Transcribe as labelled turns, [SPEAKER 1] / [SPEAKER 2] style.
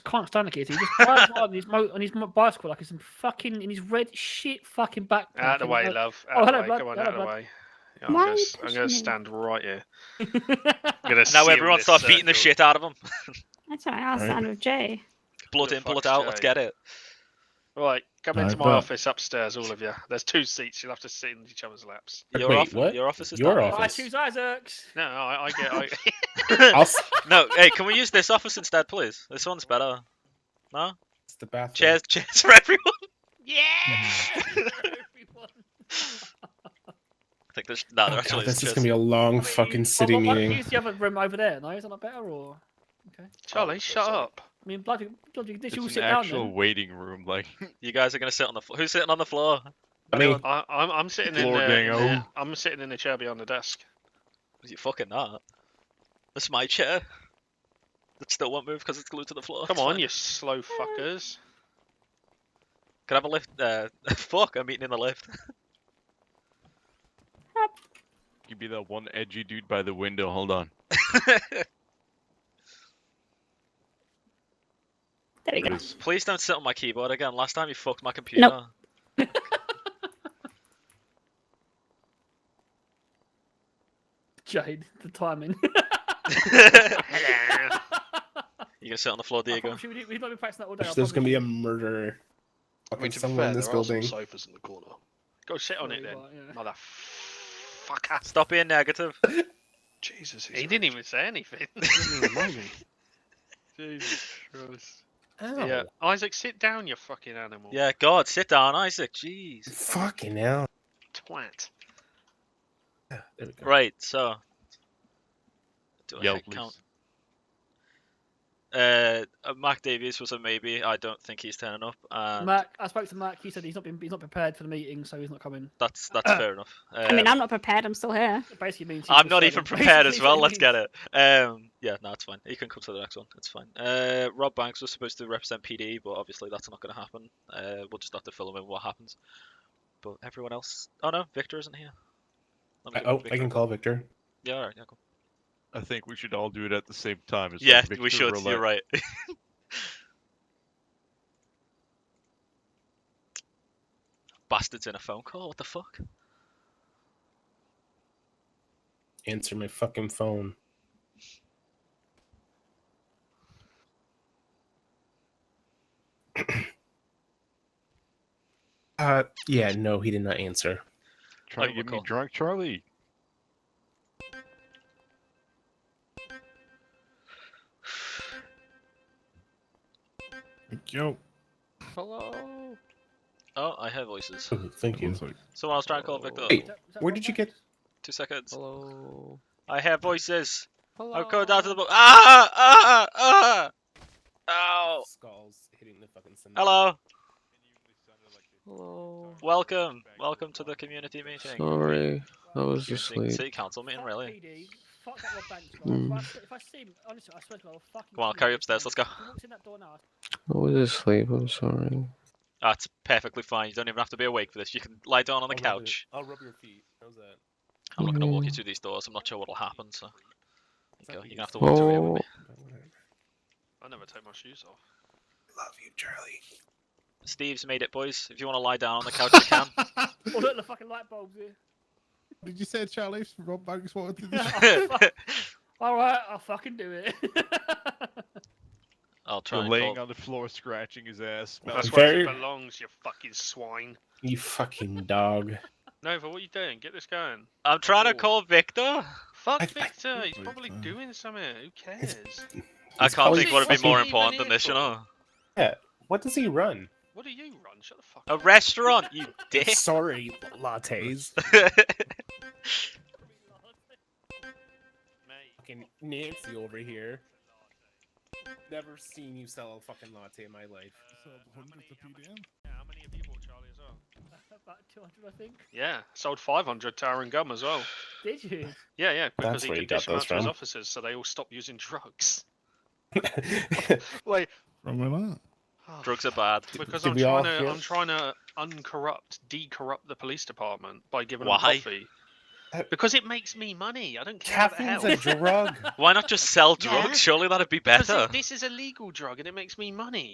[SPEAKER 1] can't stand the kid. He just drives hard on his mo- on his mo- bicycle like he's in fucking in his red shit fucking backpack.
[SPEAKER 2] Out of
[SPEAKER 1] and
[SPEAKER 2] the way,
[SPEAKER 1] he's
[SPEAKER 2] love.
[SPEAKER 1] Oh,
[SPEAKER 2] Out of
[SPEAKER 1] hello,
[SPEAKER 2] the way.
[SPEAKER 1] bud.
[SPEAKER 2] Come on,
[SPEAKER 1] Hello,
[SPEAKER 2] out of the
[SPEAKER 1] bud.
[SPEAKER 2] way. Yeah, I'm
[SPEAKER 3] Why are
[SPEAKER 2] gonna,
[SPEAKER 3] you
[SPEAKER 2] s- I'm
[SPEAKER 3] pushing
[SPEAKER 2] gonna
[SPEAKER 3] me?
[SPEAKER 2] stand right here.
[SPEAKER 1] like-
[SPEAKER 2] I'm gonna
[SPEAKER 4] Now
[SPEAKER 2] seal
[SPEAKER 4] everyone
[SPEAKER 2] this
[SPEAKER 4] start beating the
[SPEAKER 2] circle.
[SPEAKER 4] shit out of them.
[SPEAKER 3] That's all right. I'll
[SPEAKER 5] Right.
[SPEAKER 3] stand with Jay.
[SPEAKER 4] Blood
[SPEAKER 2] The
[SPEAKER 4] in, blood
[SPEAKER 2] fuck's
[SPEAKER 4] out. Let's
[SPEAKER 2] going?
[SPEAKER 4] get it.
[SPEAKER 2] Right, come
[SPEAKER 5] No,
[SPEAKER 2] into my
[SPEAKER 5] but-
[SPEAKER 2] office upstairs, all of you. There's two seats. You'll have to sit in each other's laps.
[SPEAKER 5] Wait,
[SPEAKER 4] Your, off-
[SPEAKER 5] what?
[SPEAKER 4] your office is
[SPEAKER 5] Your
[SPEAKER 1] I
[SPEAKER 4] down.
[SPEAKER 5] office.
[SPEAKER 1] choose Isaacs.
[SPEAKER 2] No, I, I get. I,
[SPEAKER 5] I'll s-
[SPEAKER 4] No, hey, can we use this office instead, please? This one's better. No?
[SPEAKER 5] it's the bathroom.
[SPEAKER 4] Chairs, chairs for everyone.
[SPEAKER 1] Everyone.
[SPEAKER 4] I think there's no,
[SPEAKER 5] Oh
[SPEAKER 4] there
[SPEAKER 5] God,
[SPEAKER 4] actually is
[SPEAKER 5] this is
[SPEAKER 4] chairs.
[SPEAKER 5] gonna be a long
[SPEAKER 1] I mean,
[SPEAKER 5] fucking
[SPEAKER 1] why-
[SPEAKER 5] city
[SPEAKER 1] why don't Oh, you
[SPEAKER 5] meeting.
[SPEAKER 1] Use the other room over there. No, is that not better? Or
[SPEAKER 2] Charlie, shut up.
[SPEAKER 1] I mean, bloody, bloody, this
[SPEAKER 6] It's
[SPEAKER 1] you all
[SPEAKER 6] an
[SPEAKER 1] sit down.
[SPEAKER 6] actual
[SPEAKER 1] Then.
[SPEAKER 6] waiting room, like
[SPEAKER 4] You guys are gonna sit on the floor. Who's sitting on the floor?
[SPEAKER 5] I mean,
[SPEAKER 2] I, I'm, I'm sitting in
[SPEAKER 6] Floor
[SPEAKER 2] the, in
[SPEAKER 6] being
[SPEAKER 2] the-
[SPEAKER 6] old.
[SPEAKER 2] I'm sitting in the chair behind the desk.
[SPEAKER 4] You fucking not. That's my chair. It still won't move because it's glued to the floor.
[SPEAKER 2] Come
[SPEAKER 4] it's
[SPEAKER 2] on,
[SPEAKER 4] fine.
[SPEAKER 2] you slow fuckers.
[SPEAKER 4] Can I have a lift? Uh, fuck, I'm eating in the lift.
[SPEAKER 6] you'd be that one edgy dude by the window. Hold on.
[SPEAKER 3] There we go.
[SPEAKER 4] Please don't sit on my keyboard again. Last time you fucked my computer.
[SPEAKER 1] Jade, the timing.
[SPEAKER 2] Hello.
[SPEAKER 4] you gonna sit on the floor,
[SPEAKER 1] I
[SPEAKER 4] Diego?
[SPEAKER 1] promise you, we- We've not been practicing that all day. I
[SPEAKER 5] there's gonna
[SPEAKER 1] promise.
[SPEAKER 5] be a murder.
[SPEAKER 7] I mean,
[SPEAKER 5] Fucking
[SPEAKER 7] to be
[SPEAKER 5] someone
[SPEAKER 7] fair,
[SPEAKER 5] in this
[SPEAKER 7] there are some
[SPEAKER 5] building.
[SPEAKER 7] sofas in the corner.
[SPEAKER 2] Go sit on it
[SPEAKER 1] Yeah,
[SPEAKER 2] then,
[SPEAKER 1] you are,
[SPEAKER 2] motherfucker.
[SPEAKER 4] Stop being negative.
[SPEAKER 7] Jesus, he's
[SPEAKER 2] He didn't even say anything.
[SPEAKER 7] didn't even know me.
[SPEAKER 2] Jesus Christ.
[SPEAKER 5] Ow.
[SPEAKER 2] Yeah, Isaac, sit down, you fucking animal.
[SPEAKER 4] Yeah, God, sit down, Isaac. Jeez.
[SPEAKER 5] Fucking hell.
[SPEAKER 2] twat.
[SPEAKER 5] Yeah, There we go.
[SPEAKER 4] Right, so. Do I
[SPEAKER 6] Yo,
[SPEAKER 4] hit count?
[SPEAKER 6] please.
[SPEAKER 4] Uh, uh, Mac Davies was a maybe. I don't think he's turning up. And
[SPEAKER 1] Mark, I spoke to Mark. He said he's not been, he's not prepared for the meeting, so he's not coming.
[SPEAKER 4] that's that's fair enough. Uh,
[SPEAKER 3] I mean, I'm not prepared. I'm still here.
[SPEAKER 1] It basically means.
[SPEAKER 4] I'm not even prepared as well. Let's get it. Um, yeah, no, it's fine. You can come to the next one. It's fine. Uh, Rob Banks was supposed to represent PD, but obviously that's not going to happen. Uh, we'll just have to fill him in what happens. But everyone else. Oh no, Victor isn't here. Let me
[SPEAKER 5] I-
[SPEAKER 4] give
[SPEAKER 5] Oh,
[SPEAKER 4] Victor
[SPEAKER 5] I
[SPEAKER 4] a
[SPEAKER 5] can
[SPEAKER 4] call.
[SPEAKER 5] call Victor.
[SPEAKER 4] Yeah, all right, yeah, cool.
[SPEAKER 6] I think we should all do it at the same time. It's like
[SPEAKER 4] yeah
[SPEAKER 6] Victor
[SPEAKER 4] we should.
[SPEAKER 6] roulette.
[SPEAKER 4] You're right. Bastards in a phone call. What the fuck?
[SPEAKER 5] Answer my fucking phone. uh, yeah, no, he did not answer.
[SPEAKER 6] Trying
[SPEAKER 4] Oh,
[SPEAKER 6] to get me
[SPEAKER 4] recall.
[SPEAKER 6] drunk, Charlie.
[SPEAKER 5] Yo.
[SPEAKER 6] Hello.
[SPEAKER 4] Oh, I hear voices.
[SPEAKER 6] Hmm.
[SPEAKER 5] Thank you.
[SPEAKER 4] Someone else try and call Victor.
[SPEAKER 5] Hey. Where did you get?
[SPEAKER 4] Two seconds.
[SPEAKER 6] Hello.
[SPEAKER 4] I hear voices.
[SPEAKER 6] Hello.
[SPEAKER 4] I'm going down to the boat. Ah! Ah! Ah! Ow!
[SPEAKER 5] Skulls hitting the fucking cement.
[SPEAKER 4] Oh. Hello.
[SPEAKER 6] Hello.
[SPEAKER 4] Welcome. Welcome to the community meeting.
[SPEAKER 6] Sorry, I was
[SPEAKER 4] Community- City council meeting, really.
[SPEAKER 1] Fuck that Rob Banks, right?
[SPEAKER 6] Mm.
[SPEAKER 1] If I s- If I see him, honestly, I swear to God, I'll fucking.
[SPEAKER 4] Come on,
[SPEAKER 1] kill
[SPEAKER 4] carry
[SPEAKER 1] him.
[SPEAKER 4] upstairs, let's go.
[SPEAKER 1] He walks in that door now.
[SPEAKER 6] I was asleep. I'm sorry.
[SPEAKER 4] That's perfectly fine. You don't even have to be awake for this. You can lie down on the couch.
[SPEAKER 5] I'll rub your feet. How's that?
[SPEAKER 4] I'm not going to walk you
[SPEAKER 6] Mm.
[SPEAKER 4] through these doors. I'm not sure what'll happen, so. There you go. You're going to have to walk through here with
[SPEAKER 6] Oh,
[SPEAKER 4] me.
[SPEAKER 2] I never take my shoes off.
[SPEAKER 5] Love you, Charlie.
[SPEAKER 4] Steve's made it, boys. If you want to lie down on the couch, you can.
[SPEAKER 1] Oh, look, the fucking light bulbs here.
[SPEAKER 8] Did you say Charlie Rob Banks wanted to do this?
[SPEAKER 1] Oh, fuck. All right, I'll fucking do it.
[SPEAKER 4] I'll try
[SPEAKER 6] You're
[SPEAKER 4] and
[SPEAKER 6] laying
[SPEAKER 4] call.
[SPEAKER 6] on the floor, scratching his ass.
[SPEAKER 2] That's
[SPEAKER 6] smelling-
[SPEAKER 2] where
[SPEAKER 5] Very-
[SPEAKER 2] it belongs, you fucking swine.
[SPEAKER 5] You fucking dog.
[SPEAKER 2] Nova, what are you doing? Get this going.
[SPEAKER 4] I'm trying to
[SPEAKER 2] Oh.
[SPEAKER 4] call Victor.
[SPEAKER 2] Fuck
[SPEAKER 5] I- I-
[SPEAKER 2] Victor, he's probably
[SPEAKER 8] Victor.
[SPEAKER 2] doing something. Who cares?
[SPEAKER 4] I
[SPEAKER 5] He's
[SPEAKER 4] can't
[SPEAKER 5] probably
[SPEAKER 4] think what would be
[SPEAKER 2] fucking
[SPEAKER 4] more
[SPEAKER 2] even
[SPEAKER 4] important than
[SPEAKER 2] here
[SPEAKER 4] this, you
[SPEAKER 2] for.
[SPEAKER 4] know.
[SPEAKER 5] What does he run?
[SPEAKER 2] What do you run? Shut the fuck
[SPEAKER 4] A
[SPEAKER 2] up.
[SPEAKER 4] restaurant, you dick.
[SPEAKER 5] Sorry, lattes.
[SPEAKER 2] mate.
[SPEAKER 5] fucking Nancy over here. Never seen you sell a fucking latte in my life.
[SPEAKER 2] Uh,
[SPEAKER 8] Sold
[SPEAKER 2] how,
[SPEAKER 8] 100
[SPEAKER 2] many,
[SPEAKER 8] to
[SPEAKER 2] how,
[SPEAKER 8] PDM.
[SPEAKER 2] yeah, how many of you bought Charlie as well?
[SPEAKER 1] About 200, I think.
[SPEAKER 2] Yeah, sold 500 to Aaron Gum as well.
[SPEAKER 1] Did you?
[SPEAKER 2] Yeah, yeah, because
[SPEAKER 5] That's
[SPEAKER 2] he
[SPEAKER 5] where
[SPEAKER 2] could
[SPEAKER 5] you got
[SPEAKER 2] dish 'em out
[SPEAKER 5] those
[SPEAKER 2] to his
[SPEAKER 5] from.
[SPEAKER 2] officers, so they all stopped using drugs. Wait,
[SPEAKER 8] Wrong with that.
[SPEAKER 2] oh,
[SPEAKER 4] Drugs are bad.
[SPEAKER 2] because
[SPEAKER 5] did
[SPEAKER 2] I'm
[SPEAKER 5] we all
[SPEAKER 2] trying to
[SPEAKER 5] hear-
[SPEAKER 2] I'm trying to uncorrupt, decorrupt the police department by giving
[SPEAKER 4] Why?
[SPEAKER 2] them coffee. Because it makes me money. I don't care about
[SPEAKER 9] Caffeine's
[SPEAKER 2] health.
[SPEAKER 9] a drug.
[SPEAKER 4] Why not just sell
[SPEAKER 2] Yeah.
[SPEAKER 4] drugs? Surely that'd be
[SPEAKER 2] 'Cause it-
[SPEAKER 4] better.
[SPEAKER 2] this is a legal drug and it makes me money.